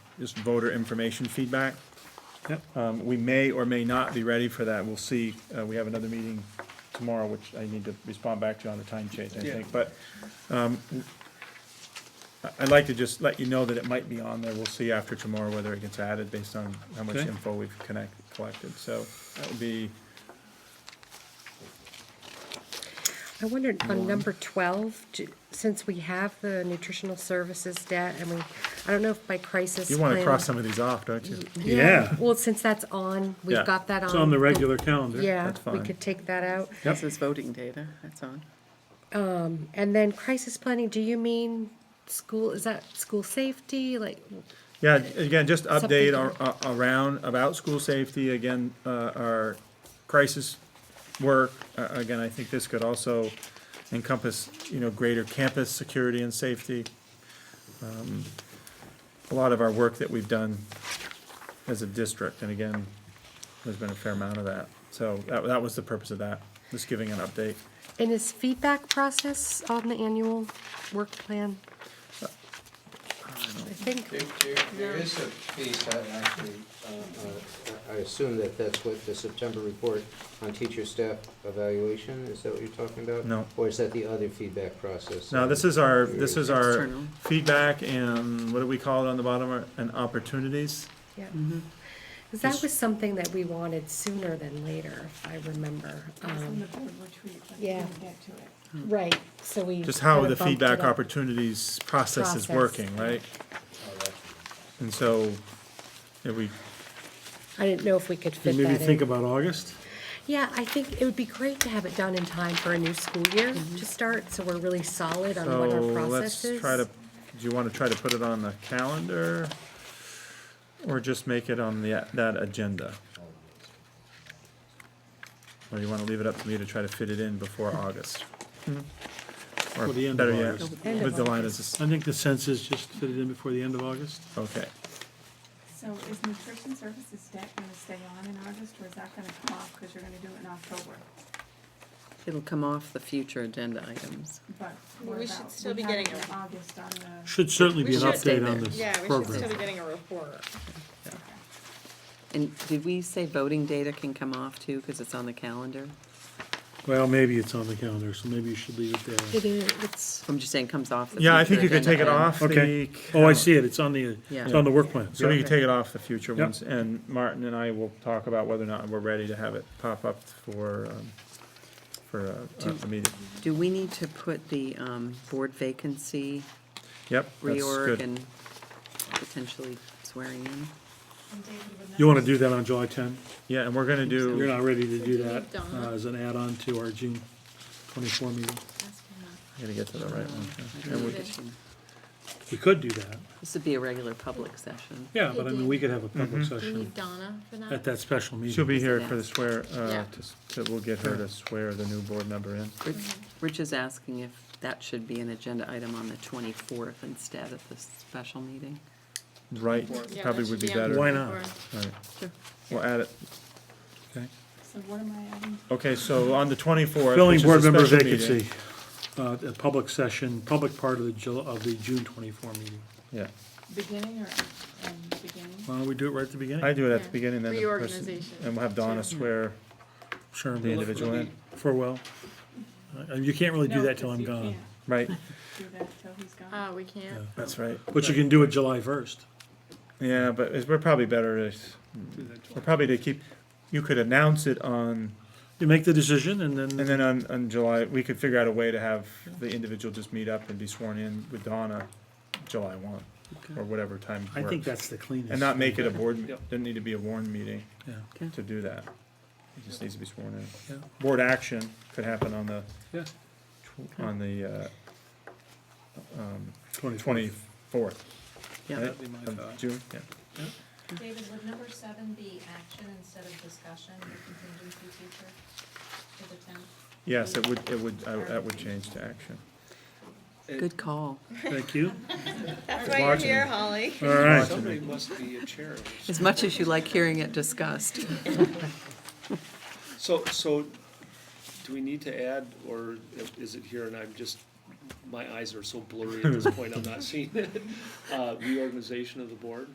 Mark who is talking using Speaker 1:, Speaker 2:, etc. Speaker 1: just voter information feedback.
Speaker 2: Yep.
Speaker 1: Um, we may or may not be ready for that, we'll see, uh, we have another meeting tomorrow, which I need to respond back to on the time change, I
Speaker 2: Yeah.
Speaker 1: think, but, um, I- I'd like to just let you know that it might be on there, we'll see after tomorrow whether it gets added based on how much
Speaker 2: Okay.
Speaker 1: info we've connect, collected, so that would be,
Speaker 3: I wondered on number twelve, do- since we have the nutritional services debt and we, I don't know if by crisis.
Speaker 1: you wanna
Speaker 3: plan-
Speaker 1: cross some of these off, don't you?
Speaker 2: Yeah.
Speaker 3: Well, since that's on,
Speaker 1: Yeah.
Speaker 3: we've got that on.
Speaker 2: It's on the regular calendar.
Speaker 3: Um, Yeah,
Speaker 1: That's
Speaker 3: we
Speaker 1: fine.
Speaker 3: could take that out.
Speaker 2: Yep.
Speaker 4: This is voting data, that's on.
Speaker 3: And then crisis planning, do you mean school, is that school safety, like,
Speaker 1: Yeah, again, just update
Speaker 3: Something-
Speaker 1: ar- a- around, about school safety, again, uh, our crisis work. Uh, Again, I think this could also encompass, you know, greater campus security and safety. Um, A lot of our work that we've done as a district, and again, there's been a fair amount of that. So that, that was the purpose of that, just giving an update.
Speaker 3: and is feedback process on the annual work plan?
Speaker 1: Uh,
Speaker 3: I think,
Speaker 5: There, there- there is a piece, I actually, uh, uh, I assume that that's what the September report on teacher staff evaluation, is that what you're talking about?
Speaker 1: No.
Speaker 5: Or is that the other feedback process?
Speaker 1: Now, this is our, this is our
Speaker 4: External.
Speaker 1: feedback and what do we call it on the bottom, and opportunities?
Speaker 3: yeah.
Speaker 1: Mm-hmm.
Speaker 3: 'Cause that was something that we wanted sooner than later, if I remember.
Speaker 6: It was
Speaker 3: Um,
Speaker 6: in the board retreat, but we
Speaker 3: yeah.
Speaker 6: didn't get to it.
Speaker 3: Right, so we.
Speaker 1: Just how
Speaker 3: kinda
Speaker 1: the
Speaker 3: bumped
Speaker 1: feedback
Speaker 3: it up.
Speaker 1: opportunities process is
Speaker 3: Process.
Speaker 1: working, right? And so, if we,
Speaker 3: I didn't know if we could fit
Speaker 2: And maybe
Speaker 3: that
Speaker 2: think
Speaker 3: in.
Speaker 2: about August.
Speaker 3: Yeah, I think it would be great to have it done in time for a new school year to start, so we're really solid on
Speaker 1: Mm-hmm. so
Speaker 3: what our
Speaker 1: let's
Speaker 3: process is.
Speaker 1: try to, do you wanna try to put it on the calendar? Or just make it on the, that agenda? Or you wanna leave it up to me to try to fit it in before
Speaker 3: Hmm.
Speaker 1: August? Or
Speaker 2: Or the end of
Speaker 1: better yet,
Speaker 2: August.
Speaker 3: End
Speaker 1: with
Speaker 3: of
Speaker 1: the line
Speaker 3: August.
Speaker 1: as,
Speaker 2: I think the sense is just fit it in before the end of August.
Speaker 1: a- okay,
Speaker 6: So is nutrition services debt gonna stay on in August, or is that gonna come off, cause you're gonna do it in October?
Speaker 4: It'll come off the future agenda items.
Speaker 6: But
Speaker 7: Well,
Speaker 6: what
Speaker 7: we should
Speaker 6: about-
Speaker 7: still
Speaker 6: we
Speaker 7: be
Speaker 6: have
Speaker 7: getting
Speaker 6: the
Speaker 7: it.
Speaker 6: August on the,
Speaker 2: Should certainly
Speaker 7: We
Speaker 2: be an
Speaker 7: should
Speaker 4: stay
Speaker 2: update on
Speaker 4: there.
Speaker 2: this
Speaker 7: Yeah, we should still be
Speaker 2: program.
Speaker 7: getting a report.
Speaker 4: And did we say voting data can come off too, because it's on the calendar?
Speaker 2: Well, maybe it's on the calendar, so maybe you should leave it there.
Speaker 3: It is, it's,
Speaker 4: I'm just saying comes off the
Speaker 1: yeah, I
Speaker 4: future
Speaker 1: think you could
Speaker 4: agenda
Speaker 1: take it
Speaker 4: item.
Speaker 1: off the.
Speaker 2: Okay. Oh, I
Speaker 1: calendar.
Speaker 2: see it. It's on the,
Speaker 4: Yeah.
Speaker 2: it's on the work plan.
Speaker 1: So we
Speaker 2: So
Speaker 1: can take it off the future
Speaker 2: Yep.
Speaker 1: ones, and Martin and I will talk about whether or not we're ready to have it pop up for, um, for a- a- a meeting.
Speaker 4: Do we need to put the um, board vacancy
Speaker 1: Yep, that's
Speaker 4: reorg
Speaker 1: good.
Speaker 4: and potentially swearing in?
Speaker 2: you want to do that on July 10?
Speaker 1: Yeah, and we're gonna
Speaker 2: You're
Speaker 1: do,
Speaker 2: not ready to do that
Speaker 7: Donna.
Speaker 2: uh, as an add-on to our June 24 meeting.
Speaker 1: I'm gonna get to the right one.
Speaker 4: I
Speaker 1: okay. And
Speaker 4: don't know
Speaker 1: we-
Speaker 4: if we can-
Speaker 2: We could do that.
Speaker 4: This would be a regular public session.
Speaker 2: Yeah, but I mean, we could have a public session
Speaker 7: Donna for
Speaker 2: at that special meeting.
Speaker 1: Mm-hmm. She'll be here for the swear, uh,
Speaker 7: Yeah.
Speaker 1: to s- to, we'll get her to swear the new board member in.
Speaker 4: Rich, Rich is asking if that should be an agenda item on the 24th instead of the special meeting.
Speaker 1: Right,
Speaker 7: Yeah,
Speaker 1: probably
Speaker 7: that
Speaker 1: would
Speaker 7: should
Speaker 1: be
Speaker 7: on
Speaker 1: better.
Speaker 7: the
Speaker 2: Why
Speaker 1: Right,
Speaker 2: not?
Speaker 7: report.
Speaker 1: We'll add it.
Speaker 6: so what am I adding?
Speaker 1: Okay, so on the twenty-fourth, which
Speaker 2: Filling
Speaker 1: is a
Speaker 2: board member
Speaker 1: special meeting-
Speaker 2: vacancy, uh, a public session, public part of the Jul, of the June twenty-four meeting.
Speaker 1: Yeah,
Speaker 6: Beginning or, um, beginning?
Speaker 2: Why don't we do it right at the
Speaker 1: I
Speaker 2: beginning?
Speaker 1: do it at
Speaker 7: Yeah.
Speaker 1: the beginning, then the person,
Speaker 7: Reorganization,
Speaker 1: and we'll have Donna swear
Speaker 2: Sure.
Speaker 1: the individual in,
Speaker 2: For well. Uh, you can't really do
Speaker 6: No,
Speaker 2: that till
Speaker 6: 'cause
Speaker 2: I'm
Speaker 6: you
Speaker 2: gone.
Speaker 6: can't
Speaker 1: right,
Speaker 6: Do that till he's gone.
Speaker 7: Uh, we can't.
Speaker 1: that's right.
Speaker 2: But you can do it July first.
Speaker 1: Yeah, but it's, we're probably better to, we're probably to keep, you could announce it on,
Speaker 2: You make the decision and
Speaker 1: and
Speaker 2: then,
Speaker 1: then on, on July, we could figure out a way to have the individual just meet up and be sworn in with Donna July one, or whatever time
Speaker 2: I think
Speaker 1: works.
Speaker 2: that's the cleanest.
Speaker 1: And not make it a board, me- doesn't need to be a warned meeting
Speaker 2: Yeah,
Speaker 1: to do that. It just needs to be sworn in.
Speaker 2: yeah,
Speaker 1: Board action could happen on the,
Speaker 2: yeah.
Speaker 1: tw- on the, uh,
Speaker 2: Twenty-fourth.
Speaker 1: twenty-fourth,
Speaker 4: Yeah,
Speaker 1: right?
Speaker 2: That'd be my
Speaker 1: Of
Speaker 2: thought.
Speaker 1: June, yeah.
Speaker 8: David, would number seven be action instead of discussion, the contingency teacher for the tenth?
Speaker 1: Yes, it would, it would, I- that would change to action.
Speaker 4: good call.
Speaker 2: Thank you.
Speaker 7: That's
Speaker 1: why you're Watching here, it.
Speaker 7: Holly.
Speaker 2: All right.
Speaker 1: Watching it.
Speaker 9: must be a chair.
Speaker 4: As much as you like hearing it discussed.
Speaker 9: So, so do we need to add, or is it here and I'm just, my eyes are so blurry at this point, I'm not seeing it? Uh, reorganization of the board?